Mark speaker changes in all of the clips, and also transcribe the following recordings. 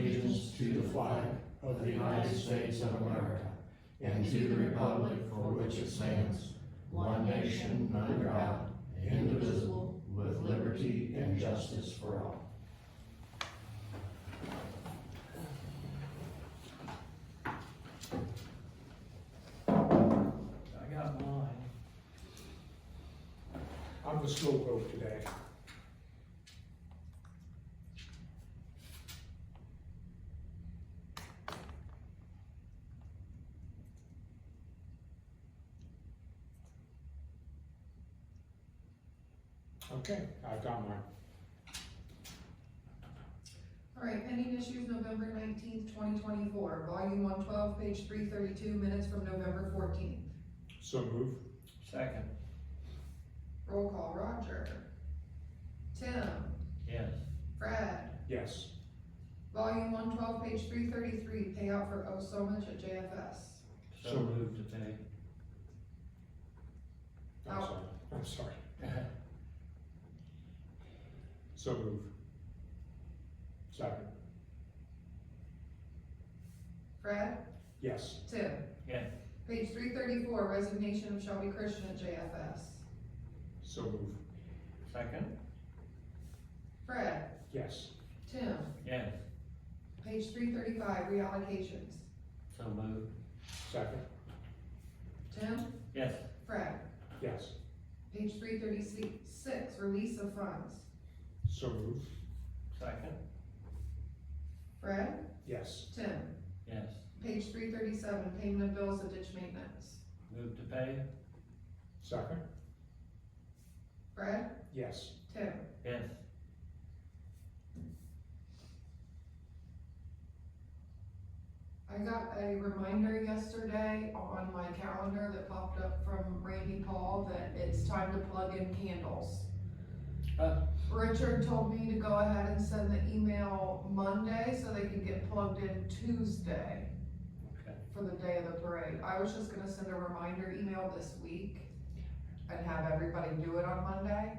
Speaker 1: to the flag of the United States of America and to the republic for which it stands, one nation under God, indivisible, with liberty and justice for all.
Speaker 2: I got mine.
Speaker 3: I'm the slow vote today. Okay, I've got mine.
Speaker 4: All right, pending issues November nineteenth, twenty twenty-four, volume one twelve, page three thirty-two, minutes from November fourteenth.
Speaker 3: So move.
Speaker 2: Second.
Speaker 4: Roll call, Roger. Tim,
Speaker 2: Yes.
Speaker 4: Fred,
Speaker 3: Yes.
Speaker 4: volume one twelve, page three thirty-three, payout for oh so much at JFS.
Speaker 2: So moved to pay.
Speaker 3: I'm
Speaker 4: Out.
Speaker 3: sorry. I'm sorry. So move. Second.
Speaker 4: Fred,
Speaker 3: Yes.
Speaker 4: Tim.
Speaker 2: Yes.
Speaker 4: Page three thirty-four, resignation of Shelby Christian at JFS.
Speaker 3: So move.
Speaker 2: Second.
Speaker 4: Fred,
Speaker 3: Yes.
Speaker 4: Tim,
Speaker 2: Yes.
Speaker 4: page three thirty-five, reallocations.
Speaker 2: So moved.
Speaker 3: Second.
Speaker 4: Tim,
Speaker 2: Yes.
Speaker 4: Fred,
Speaker 3: Yes.
Speaker 4: page three thirty-six, release of funds.
Speaker 3: So move.
Speaker 2: Second.
Speaker 4: Fred,
Speaker 3: Yes.
Speaker 4: Tim.
Speaker 2: Yes.
Speaker 4: Page three thirty-seven, payment of bills and ditch maintenance.
Speaker 2: Moved to pay.
Speaker 3: Second.
Speaker 4: Fred,
Speaker 3: Yes.
Speaker 4: Tim,
Speaker 2: Yes.
Speaker 4: I got a reminder yesterday on my calendar that popped up from Randy Paul that it's time to plug in candles.
Speaker 2: Uh.
Speaker 4: Richard told me to go ahead and send the email Monday so they can get plugged in Tuesday
Speaker 2: Okay.
Speaker 4: for the day of the parade. I was just gonna send a reminder email this week and have everybody do it on Monday.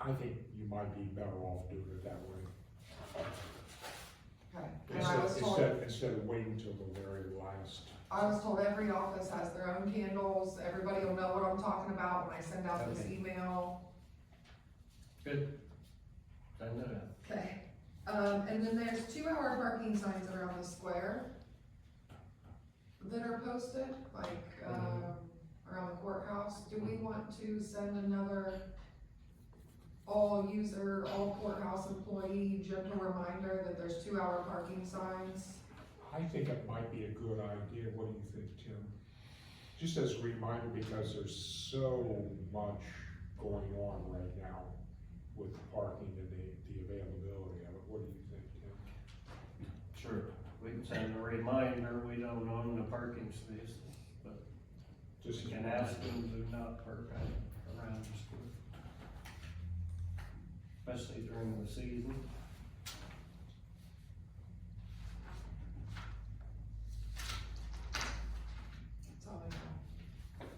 Speaker 3: I think you might be better off doing it that way.
Speaker 4: Okay. And I
Speaker 3: Instead,
Speaker 4: was told-
Speaker 3: instead, instead of waiting till the very last.
Speaker 4: I was told every office has their own candles, everybody will know what I'm talking about when I send out this
Speaker 2: Okay.
Speaker 4: email.
Speaker 2: Good. Send it out.
Speaker 4: Okay. Um, and then there's two hour parking signs around the square that are posted, like, um, around the courthouse. Do we want to send another all user, all courthouse employee gentle reminder that there's two hour parking signs?
Speaker 3: I think it might be a good idea. What do you think, Tim? Just as a reminder, because there's so much going on right now with parking and the, the availability of it. What do you think, Tim?
Speaker 2: Sure. We can send a reminder, we don't own the parking space.
Speaker 3: Just
Speaker 2: We can ask them to not park out around the school. Especially during the season.
Speaker 4: That's all I know.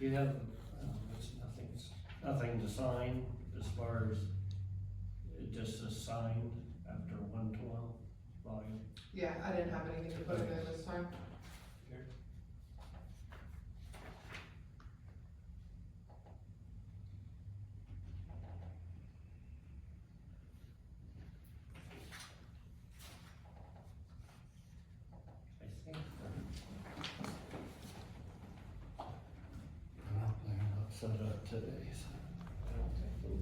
Speaker 2: You have, um, it's nothing, it's nothing to sign as far as, it just is signed after one twelve volume.
Speaker 4: Yeah, I didn't have anything to put in there this time.
Speaker 2: I think
Speaker 5: Well, they're not set up today, so.